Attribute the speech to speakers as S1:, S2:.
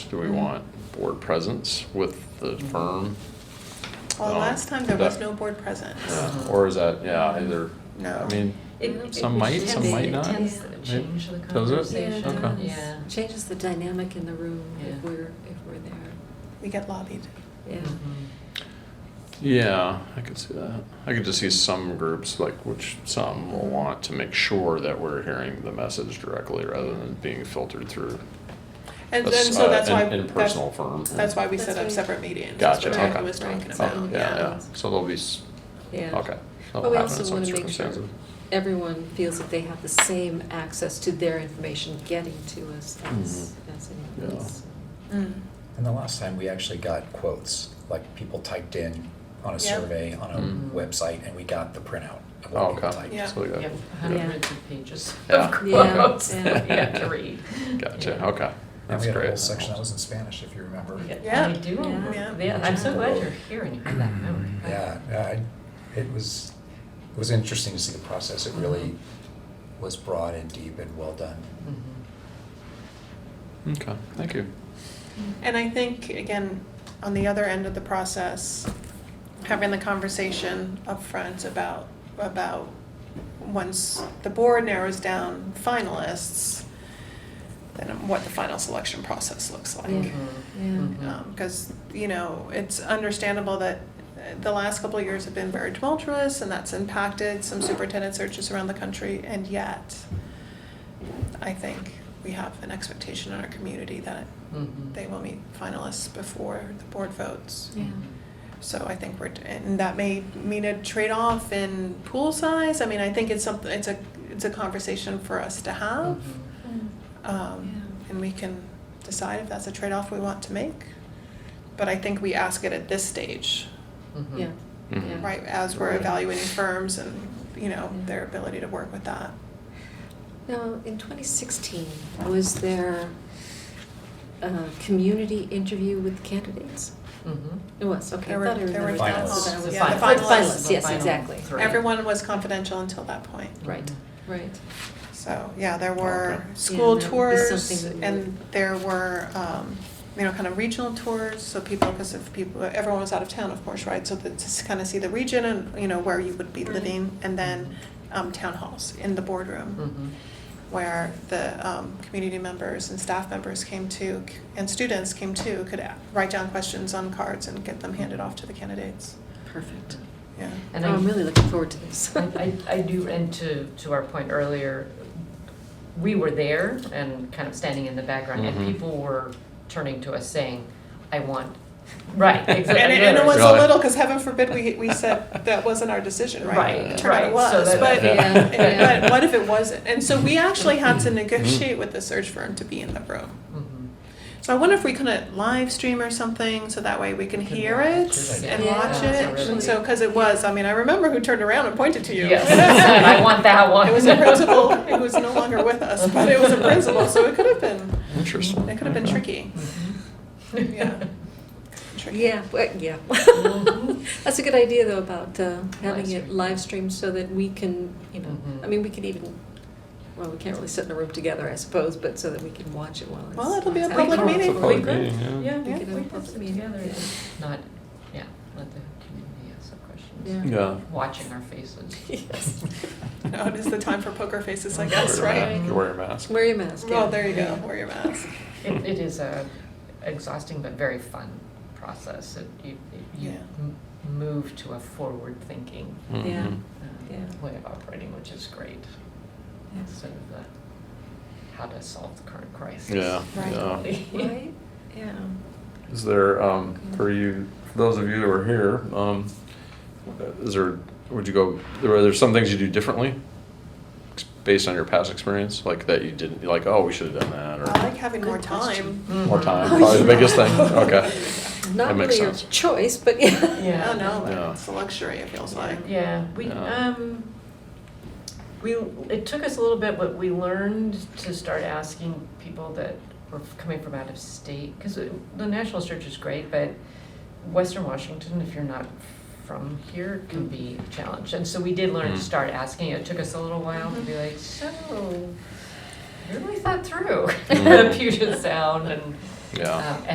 S1: Do
S2: Mm-hmm.
S1: we want board presence with the firm?
S3: Well,
S1: Um,
S3: last time there was
S1: that-
S3: no board presence.
S1: Yeah, Or is that, yeah, either,
S3: No.
S1: I mean,
S2: It- it-
S1: some
S2: it
S1: might,
S2: tends-
S1: some might not.
S2: It tends to
S1: Right?
S2: change the
S1: Does it?
S2: conversation.
S1: Yeah, it does.
S2: Yeah.
S4: Changes the dynamic in the room
S2: Yeah.
S4: if we're, if we're there.
S3: We get lobbied.
S4: Yeah.
S1: Mm-hmm.
S2: Mhm.
S1: Yeah, I could see that. I could just see some groups, like, which some will want to make sure that we're hearing the message directly rather than being filtered through.
S3: And
S1: a
S3: then,
S1: s-
S3: so
S1: uh,
S3: that's
S1: an
S3: why.
S1: impersonal
S3: that's-
S1: firm.
S3: That's why we
S4: That's
S3: set up
S4: right.
S3: separate meetings.
S1: Gotcha,
S3: That's
S1: okay.
S3: what Jackie was talking
S4: Right.
S1: Oh,
S3: about,
S4: Okay,
S1: Yeah,
S3: yeah.
S1: yeah, so there'll be, s-
S4: Yeah.
S1: okay. That'll
S4: But
S1: happen
S4: we
S1: in
S4: also
S1: some
S4: want to make sure
S1: circumstances.
S4: everyone feels that they have the same access to their information getting to us as,
S1: Mhm.
S4: as anyone
S1: Yeah.
S4: else.
S3: Mm.
S5: And the last time we actually got quotes, like people typed in on a
S3: Yeah.
S5: survey on a
S1: Mm.
S5: website, and we got the printout of what
S1: Oh,
S5: people
S1: okay.
S5: typed.
S3: Yeah.
S1: So we got-
S2: You have
S4: Yeah.
S2: hundreds of pages
S1: Yeah.
S2: of
S4: Yeah,
S2: quotes that
S1: yeah.
S2: you have to read.
S1: Gotcha,
S2: Yeah.
S1: okay.
S5: And
S1: That's
S5: we had a
S1: great.
S5: whole section that was in Spanish, if you remember.
S3: Yeah.
S2: I do,
S3: Yeah.
S2: yeah, I'm so glad you're here and you have
S1: Mm-hmm.
S2: that memory.
S5: Yeah, I, it was, it was interesting to see the process. It really was broad and deep and well done.
S3: Mm-hmm.
S2: Mhm.
S1: Okay, thank you.
S2: Mm-hmm.
S3: And I think, again, on the other end of the process, having the conversation upfront about, about, once the board narrows down finalists, then what the final selection process looks like.
S4: Yeah.
S2: Mm-hmm.
S4: Yeah.
S2: Um,
S3: Because, Um, you know, it's understandable that uh, the last couple of years have been very tumultuous, and that's impacted some superintendent searches around the country, and yet, I think we have an expectation in our community that
S2: Mhm.
S3: they will meet finalists before the board votes.
S2: Mm-hmm.
S4: Yeah.
S3: So I think we're, and that may mean a trade-off in pool size. I mean, I think it's something, it's a, it's a conversation for us to have.
S2: Mhm.
S3: Um, and we can decide if that's a trade-off we want to make. But I think we ask it at this stage,
S2: Mhm.
S4: Yeah.
S1: Mhm.
S4: Yeah.
S3: right, as we're
S1: Right.
S3: evaluating firms and, you know, their ability to work with that.
S4: Now, in 2016, was there a community interview with candidates?
S2: Mhm.
S4: It was, okay. I
S3: There were-
S4: thought I
S3: there were
S4: remembered that, so
S5: finalists.
S4: that was-
S3: Yeah, the
S4: Finalists,
S3: finalists.
S4: yes,
S2: The final
S4: exactly.
S2: three. Right.
S3: Everyone was confidential until that point.
S4: Right, right.
S3: So, yeah, there were
S1: Oh, Okay.
S3: school
S4: Yeah, that would be
S3: tours
S4: something that we
S3: and there were, um, you know, kind of regional tours, so people, because if people, everyone was out of town, of course, right? So that to kind of see the region and, you know, where you would be
S4: Right.
S3: living, and then, um, town halls in the
S4: Mm-hmm.
S3: boardroom
S2: Mhm.
S3: where the, um, community members and staff members came to, c- and students came to, could a- write down questions on cards and get them handed off to the candidates,
S4: Perfect.
S3: yeah.
S2: And
S4: Oh,
S2: I-
S4: I'm really looking forward to this.
S2: I, I I do, and to, to our point earlier, we were there and kind of standing in the background, and
S1: Mhm.
S2: people were turning to us saying, I want, right,
S3: And
S2: exactly.
S3: it, and it was a
S1: Really?
S3: little, because heaven forbid, we, we said that wasn't our decision, right?
S2: Right,
S3: It Turned out
S2: right,
S3: it
S2: so
S3: was,
S2: that-
S3: but,
S1: Yeah.
S2: Yeah.
S3: but what if it wasn't? And so we actually had to negotiate with the search firm to be in the room.
S2: Mhm.
S3: So I wonder if we couldn't live stream or something, so that way we can
S2: We could
S3: hear
S2: watch
S3: it
S2: it.
S3: and
S4: Yeah,
S3: watch it.
S2: absolutely.
S3: And so, because it was, I mean, I remember who turned around and pointed to you.
S2: Yes, I want that one.
S3: It was a principal who was no longer with us, but it was a principal, so it could have been,
S1: Interesting.
S3: it could have been
S1: Okay.
S3: tricky, Mm-hmm. yeah. tricky.
S4: Yeah, but, yeah. Mm-hmm.
S2: Mhm.
S4: That's a good idea though about uh, having
S2: Live
S4: it
S2: stream.
S4: live streamed so that we can, you know,
S2: Mhm.
S4: I mean, we could even, well, we can't really sit in a room together, I suppose, but so that we can watch it while it's.
S3: Well, it'll be a
S4: it's
S3: public
S4: happening.
S3: meeting.
S1: It's a public
S2: We could.
S1: meeting, yeah.
S2: Yeah, we
S3: Yeah,
S2: could
S4: we
S2: have
S4: could
S2: public
S4: meet
S2: meeting
S4: together.
S2: together, not, yeah, let the community ask some questions,
S4: Yeah.
S1: Yeah.
S2: watching our faces.
S4: Yes.
S3: No, it is the time for poker faces, I
S2: Wear
S3: guess,
S1: Wear your
S3: right?
S1: ma- Wear your mask.
S4: Wear your mask. yeah.
S3: Oh, there you go, wear your mask.
S2: It, it is a exhausting but very fun process, it, you, you
S3: Yeah.
S2: m- move to a forward-thinking
S4: Yeah.
S1: Mhm.
S2: um,
S4: Yeah.
S2: way of operating, which is great.
S4: Yes.
S2: Sort of the, how to solve the current crisis.
S1: Yeah,
S3: Right.
S1: yeah.
S4: Right, yeah.
S1: Is there, um, for you, for those of you who are here, um, is there, would you go, are there some things you do differently? ex- Based on your past experience, like that you didn't, like, oh, we should have done that,
S3: I like
S1: or
S3: having more
S4: Good
S3: time.
S4: question.
S1: more
S2: Mhm.
S1: time,
S4: Oh,
S1: probably the
S4: yeah.
S1: biggest thing, okay. That
S4: Not
S1: makes
S4: really your
S1: sense.
S4: choice, but Mm. yeah.
S2: Yeah.
S3: Oh, no,
S1: Yeah.
S3: it's a luxury, it feels like.
S2: Yeah, we,
S1: Yeah.
S2: um, we, it took us a little bit, but we learned to start asking people that were coming from out of state, because the national search is great, but Western Washington, if you're not from here, can be a challenge. And so we did learn
S1: Mm. Mm-hmm.
S2: to start asking, it took us a little while to be like, so, I really thought through
S1: Mm.
S2: Puget Sound and
S1: Yeah.
S2: Um,